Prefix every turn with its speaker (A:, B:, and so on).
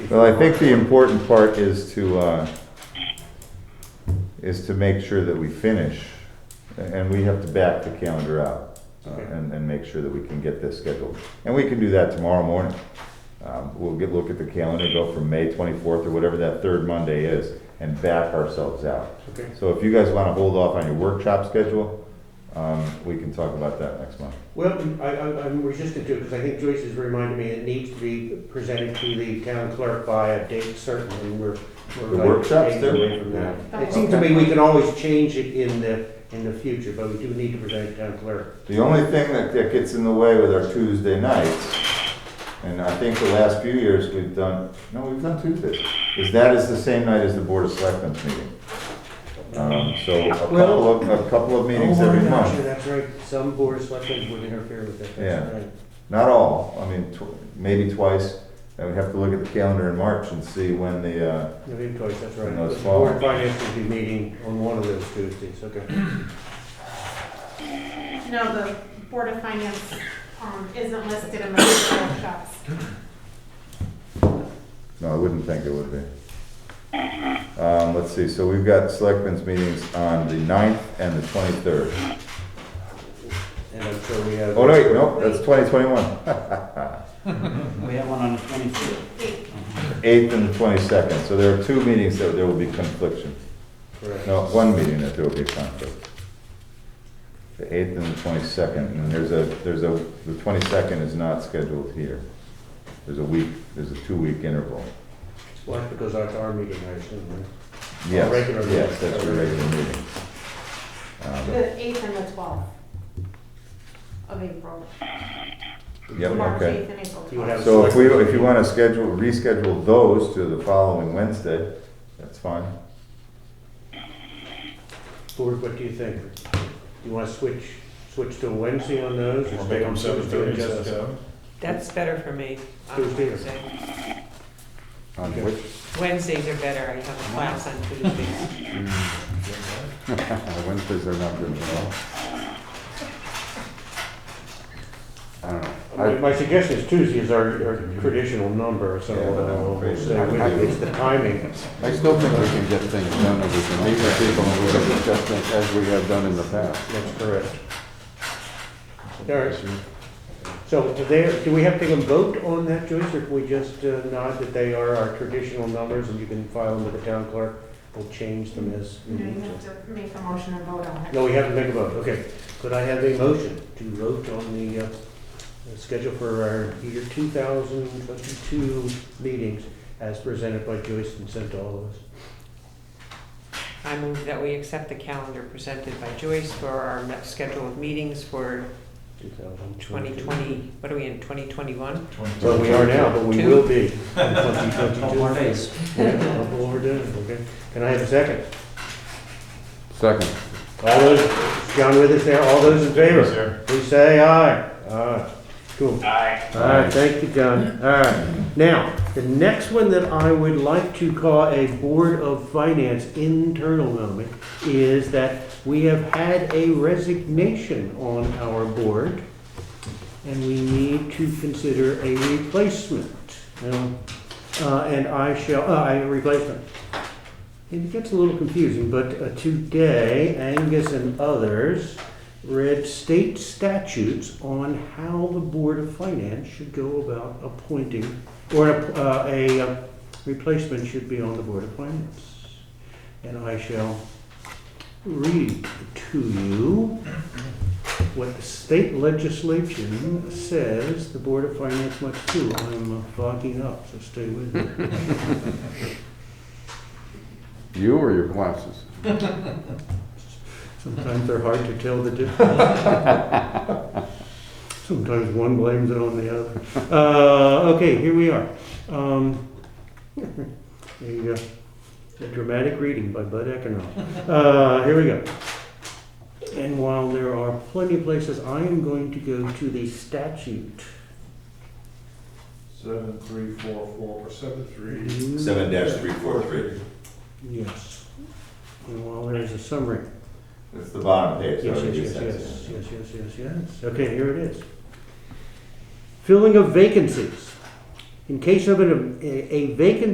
A: Well, I think the important part is to, uh, is to make sure that we finish, and we have to back the calendar out, uh, and, and make sure that we can get this scheduled. And we can do that tomorrow morning. Um, We'll get, look at the calendar, go from May twenty-fourth or whatever that third Monday is, and back ourselves out.
B: Okay.
A: So if you guys wanna hold off on your workshop schedule, um, we can talk about that next month.
B: Well, I, I- I'm resistant to it because I think Joyce has reminded me it needs to be presented to the town clerk by a date certain and we're. we're
A: The
B: like
A: workshops
B: days
A: there?
B: away from that.
C: Yeah.
B: It seems to me we can always change it in the, in the future, but we do need to present it to town clerk.
A: The only thing that, that gets in the way with our Tuesday nights, and I think the last few years we've done, no, we've done Tuesdays, is that is the same night as the Board of Selectmen's meeting. Um, so a couple of, a couple of meetings
B: Oh,
A: every
B: yeah,
A: month,
B: sure, That's right. Some board of selectmen would interfere with that. That's
A: Yeah.
B: right.
A: not all, I mean, tw- maybe twice, and we have to look at the calendar in March and see when the, uh,
B: No, of course, that's right.
A: And those
B: The board of
A: fall.
B: finance will be meeting on one of those Tuesdays, okay.
C: No, the Board of Finance um, isn't listed in the workshops.
A: no, I wouldn't think it would be. Um, let's see, so we've got Selectmen's meetings on the 9th and the twenty-third.
B: And I'm sure we have.
A: Oh, no, wait, no, that's twenty twenty-one.
D: We have one on the twenty-third.
C: Eight.
A: 8th and the 22nd, so there are two meetings that there will be confliction.
B: Correct.
A: No, one meeting that there will be conflict. The 8th and the 22nd, and there's a, there's a, the 22nd is not scheduled here. There's a week, there's a two-week interval.
B: Well, that's because that's our meeting, I assume, right?
A: Yes,
B: regular meeting.
A: yes, that's a regular meeting. Um,
C: The eighth and the twelfth of April.
A: Yep,
C: March
A: okay.
C: eighth and April
B: You would have-
C: twelfth.
A: So if we, if you want to schedule, reschedule those to the following Wednesday, that's fine.
B: Board, what do you think? Do you want to switch, switch to Wednesday on those? or stay on Tuesday and just, uh,
E: That's better for me on
B: Tuesday.
E: Wednesday.
A: On
B: Okay.
A: which,
E: Wednesdays are better, I have a class on Tuesdays.
F: Wednesdays are not good at all. I don't know.
B: My
F: I-
B: my suggestion is Tuesdays are our traditional number, so
A: Yeah, but I'm
B: uh, we'll
A: afraid
B: say
A: I'm not
B: it's the timing.
F: I still think we can get things done, and we can meet with people, and we can discuss things as we have done in the past.
B: That's correct. All right. So do they- do we have to take a vote on that, Joyce, or can we just uh, nod that they are our traditional numbers and you can file them with the town clerk? We'll change them as. we
C: No, you
B: need to.
C: have to make a motion and vote on it.
B: No, we haven't made a vote, okay. Could I have a motion to vote on the uh, the schedule for our year 2022 meetings as presented by Joyce and sent to all of us?
E: I move that we accept the calendar presented by Joyce for our me- schedule of meetings for 2020, what are we in, 2021?
B: Well, we are now, but we
E: Two.
B: will be in 2022.
D: Twelve more days.
B: Yeah, that's what we're doing, okay. Can I have a second?
F: Second,
B: All those, John with us there, all those in favor? Please say aye. Aye. Cool. Aye. All right, thank you, John. All right. Now, the next one that I would like to call a Board of Finance internal moment is that we have had a resignation on our board, and we need to consider a replacement. Now, uh, And I shall, uh, a replacement. It gets a little confusing, but uh, today Angus and others read state statutes on how the Board of Finance should go about appointing, or uh, a uh, replacement should be on the Board of Finance. And I shall read to you what the state legislation says the Board of Finance must do. I'm uh, fogging up, so stay with me.
F: you or your glasses?
B: Sometimes they're hard to tell the difference. Sometimes one blames it on the other. Uh, okay, here we are. Um, there you go. A dramatic reading by Bud Eckernall. Uh, here we go. And while there are plenty of places, I am going to go to the statute.
G: Seven, three, four, four, seven, three.
A: Seven dash three four three.
B: Yes. And while there is a summary.
A: It's the bottom page.
B: Yes,
A: so it
B: yes, yes,
A: makes sense.
B: yes, yes, yes, yes, yes. Okay, here it is. Filling of vacancies. in case of an, a a vacant